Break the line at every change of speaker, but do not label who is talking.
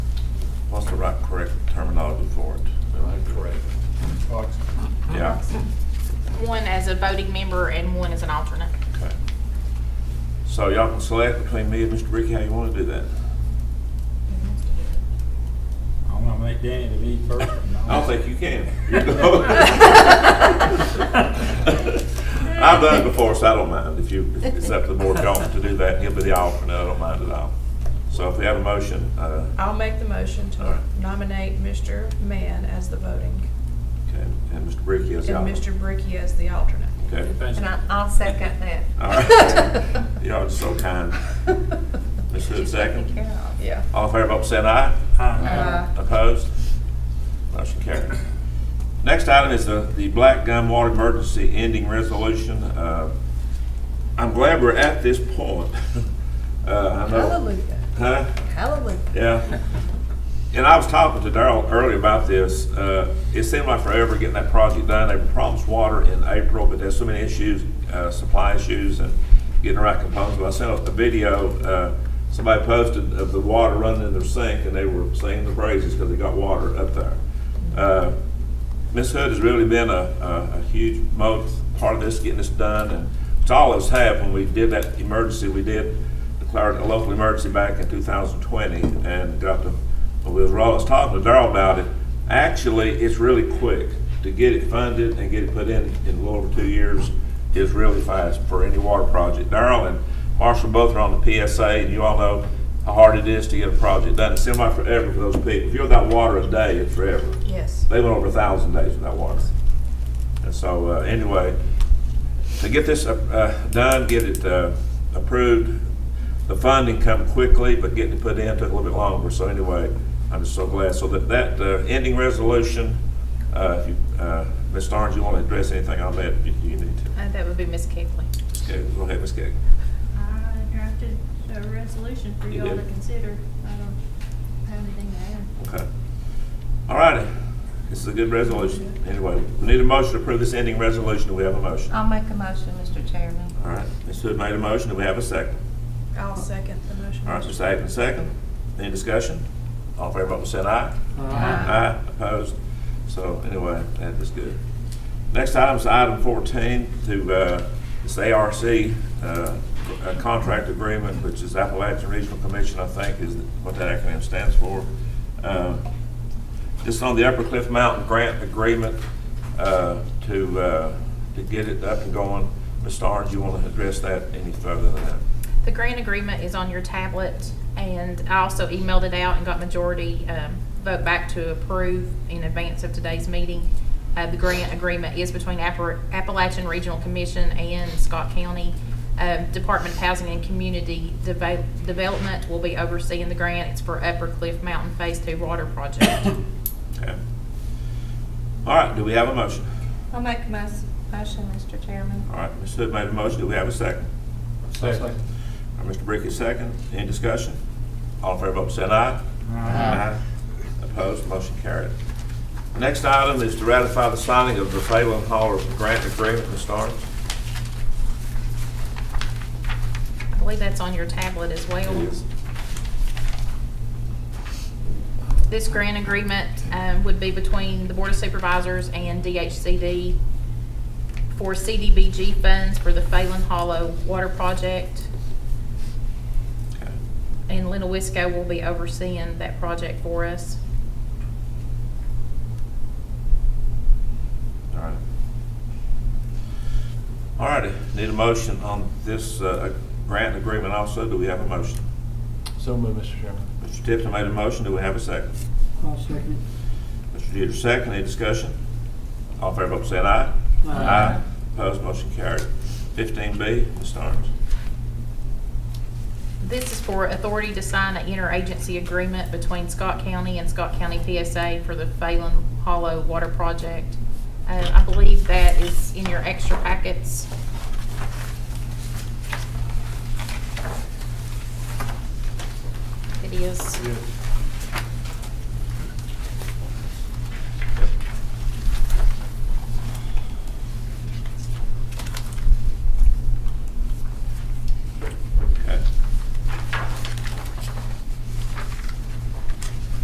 the right, correct terminology for it.
Correct.
Fox.
Yeah,
One as a voting member and one as an alternate.
okay. So y'all can select between me and Mr. Ricky how you want to do that.
I wanna make Danny the lead person.
I don't think you can. I've done it before, so I don't mind. If you, if it's up to the board y'all want to do that, he'll be the alternate, I don't mind at all. So if we have a motion, uh,
I'll make the motion
All
to
right.
nominate Mr. Mann as the voting
okay, and Mr. Ricky is
and
the alternate.
Mr. Bricky as the alternate.
Okay,
And I, I'll second that.
all right. Y'all are so kind. Ms. Hood, second.
Yeah.
All in favor, vote by saying aye.
Uh,
Opposed? Motion carried. Next item is the, the Black Gum Water Emergency Ending Resolution. Uh, I'm glad we're at this point. Uh, I know.
Hallelujah.
Huh?
Hallelujah.
Yeah. And I was talking to Darrell earlier about this. Uh, it seemed like forever getting that project done. They were promised water in April, but there's so many issues, uh, supply issues and getting the right components. But I sent a video, uh, somebody posted of the water running in their sink and they were singing the praises because they got water up there. Uh, Ms. Hood has really been a, a, a huge mo, part of this, getting this done, and it's all of us have, when we did that emergency, we did declare it a local emergency back in two thousand twenty, and got the, well, we was, I was talking to Darrell about it, actually, it's really quick to get it funded and get it put in, in a little over two years is really fast for any water project. Darrell and Marshall both are on the PSA, and you all know how hard it is to get a project done, it seems like forever for those people, if you're without water a day, it's forever
Yes.
they went over a thousand days without water. And so, uh, anyway, to get this, uh, uh, done, get it, uh, approved, the funding come quickly, but getting it put in took a little bit longer, so anyway, I'm just so glad. So that, that, uh, ending resolution, uh, if you, uh, Ms. Starnes, you wanna address anything on that, you, you need to.
Uh, That would be Ms. Kegley.
Ms. Gagan, go ahead, Ms. Gagan.
I drafted a resolution for
You
y'all to
did?
consider. I don't have anything to add.
Okay. All righty, this is a good resolution. Anyway, we need a motion to approve this ending resolution, do we have a motion?
I'll make a motion, Mr. Chairman.
All right, Ms. Hood made a motion, do we have a second?
I'll second the motion.
All right, Mr. Atkins, second. Any discussion? All in favor, vote by saying aye. Aye, opposed. So anyway, that is good. Next item is item 14 to, uh, this ARC uh, a contract agreement, which is Appalachian Regional Commission, I think is what that acronym stands for. Uh, This is on the Upper Cliff Mountain Grant Agreement uh, to, uh, to get it up and going. Ms. Starnes, you want to address that any further than that?
The grant agreement is on your tablet, and I also emailed it out and got majority um, vote back to approve in advance of today's meeting. Uh, The grant agreement is between Appar- Appalachian Regional Commission and Scott County. Um, Department of Housing and Community Deve- Development will be overseeing the grant. It's for Upper Cliff Mountain Phase Two Water Project.
Okay. All right, do we have a motion?
I'll make a mos- motion, Mr. Chairman.
All right, Ms. Hood made a motion, do we have a second?
Second.
All right, Mr. Bricky, second, any discussion? All in favor, vote by saying aye. Opposed, motion carried. Next item is to ratify the signing of the Phelan Hall Grant Agreement, Ms. Starnes.
I believe that's on your tablet as well.
It is.
This grant agreement um, would be between the Board of Supervisors and DHCD for CDBG funds for the Phelan Hollow Water Project.
Okay.
And Lena Wisco will be overseeing that project for us.
All right. All righty, need a motion on this uh, grant agreement also, do we have a motion?
So moved, Mr. Chairman.
Mr. Tipton made a motion, do we have a second?
I'll second
Mr. Jeter, second, any discussion? All in favor, vote by saying aye.
Aye.
Opposed, motion carried. Fifteen B, Ms. Starnes.
This is for authority to sign an interagency agreement between Scott County and Scott County PSA for the Phelan Hollow Water Project. Uh, I believe that is in your extra packets. It is.
Yes.